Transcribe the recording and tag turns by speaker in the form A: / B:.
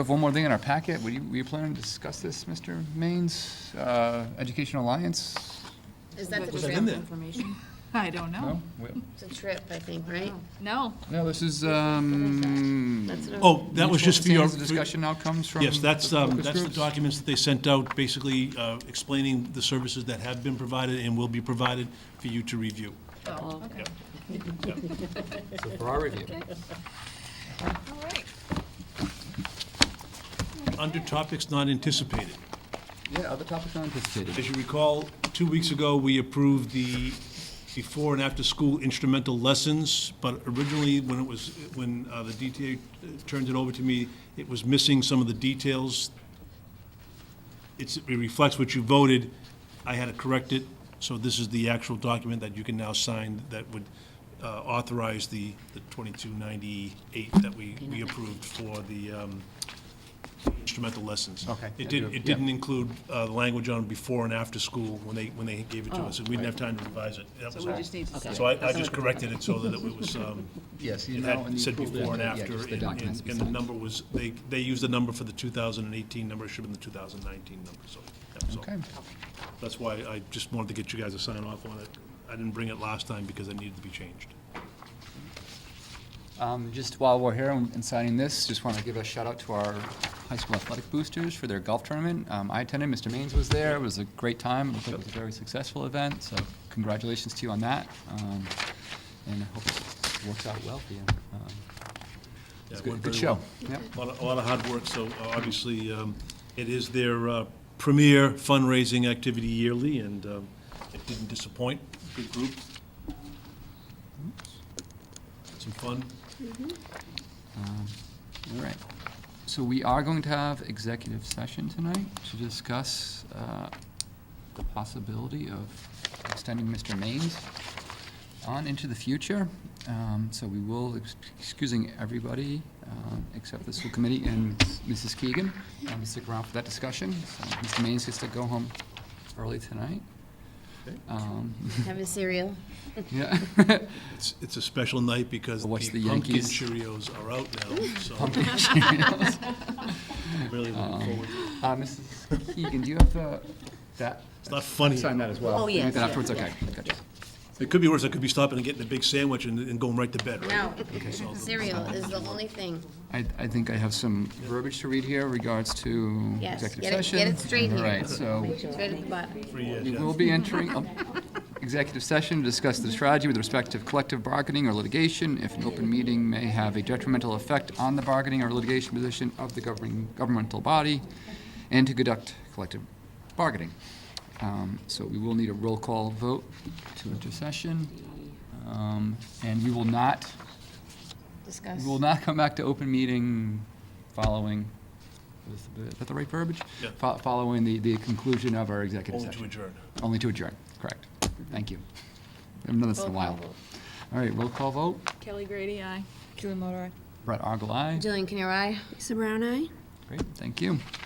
A: have one more thing in our packet. Were you, were you planning to discuss this, Mr. Maines? Uh, Education Alliance?
B: Is that the
C: Was
B: trip?
C: in there?
D: Information? I don't know.
A: No? We-
B: It's a trip, I think, right?
D: No.
A: No, this is, um.
B: That's what I'm-
C: Oh, that was just for your.
A: Mutual understandings and Discussion outcomes from.
C: Yes, that's,
A: the
C: um,
A: focus
C: that's the
A: groups?
C: documents that they sent out, basically uh, explaining the services that have been provided and will be provided for you to review.
D: Oh, okay.
A: For our review.
D: All right.
C: Under topics not anticipated.
A: Yeah, other topics not anticipated.
C: As you recall, two weeks ago, we approved the before and after-school instrumental lessons, but originally, when it was, when uh, the DTA turned it over to me, it was missing some of the details. It's, it reflects what you voted. I had to correct it, so this is the actual document that you can now sign that would uh, authorize the, the 2298 that we, we approved for the um, instrumental lessons.
A: Okay.
C: It didn't,
A: Yeah.
C: it didn't include uh, the language on before and after school when they, when they gave it to us, and we didn't have time to revise it. That was
D: Oh. So we
C: all.
D: just need to
E: Okay.
D: sign.
C: So I, I just corrected it so that it was, um,
A: Yes, you
C: it
A: know.
C: had
A: you
C: said
A: approved
C: before and
A: it. Yeah,
C: after,
A: just the
C: and,
A: documents
C: and
A: be
C: and the
A: signed.
C: number was, they, they used the number for the 2018 number, it should have been the 2019 number, so. yeah, so
A: Okay,
C: That's why I just wanted to get you guys to sign off on it. I didn't bring it last time because it needed to be changed.
A: um, just while we're here and and signing this, just want to give a shout out to our high school athletic boosters for their golf tournament. Um, I attended, Mr. Maines was there, it was a great time, it looked like it was a very successful event, so congratulations to you on that. Um, And I hope it works out well for you. Um,
C: Yeah,
A: It's
C: it
A: good-
C: went
A: good
C: very well.
A: show, yep.
C: A lot, of- a lot of hard work, so uh, obviously, um, it is their uh, premier fundraising activity yearly, and um, it didn't disappoint. Good group. Some fun.
A: All right. So we are going to have executive session tonight to discuss uh, the possibility of extending Mr. Maine's on into the future. Um, So we will, ex- excusing everybody um, except the school committee and Mrs. Keegan, um, stick around for that discussion. So Mr. Maine's gets to go home early tonight. Um,
B: Have a cereal.
A: Yeah,
C: It's, it's a special night because the
A: Watch the
C: pumpkin
A: Yankees.
C: Cheerios are out now, so
A: pumpkin
C: I'm
A: Cheerios.
C: really looking forward to it.
A: Uh, Mrs. Keegan, do you have the, that?
C: It's not funny.
A: Sign that as well.
B: Oh,
A: You need
B: yes,
A: that
B: yeah,
A: afterwards,
B: yeah.
A: okay, gotcha.
C: It could be worse, I could be stopping and getting a big sandwich and, and going right to bed, right?
B: No,
C: so-
B: cereal is the only thing.
A: I, I think I have some verbiage to read here regards to
B: Yes,
A: executive
B: get it-
A: session.
B: get it straight
A: All
B: here.
A: right, so
B: It's right at the bottom.
C: Three years,
A: we
C: yeah.
A: will be entering a executive session to discuss the strategy with respect to collective bargaining or litigation. If an open meeting may have a detrimental effect on the bargaining or litigation position of the governing, governmental body, and to conduct collective bargaining. Um, So we will need a roll call vote to enter session. Um, And we will not
B: Discuss.
A: We will not come back to open meeting following, is the- is that the right verbiage?
C: Yeah.
A: Fo- Following the, the conclusion of our executive
C: Only to
A: session.
C: adjourn.
A: Only to adjourn, correct. Thank you. I haven't done this in a
B: Roll call
A: while.
B: vote.
A: All right, roll call vote.
D: Kelly Grady, aye.
A: Brett Argyle, aye.
B: Jillian Canier, aye?
F: Lisa Brown, aye.
A: Great, thank you.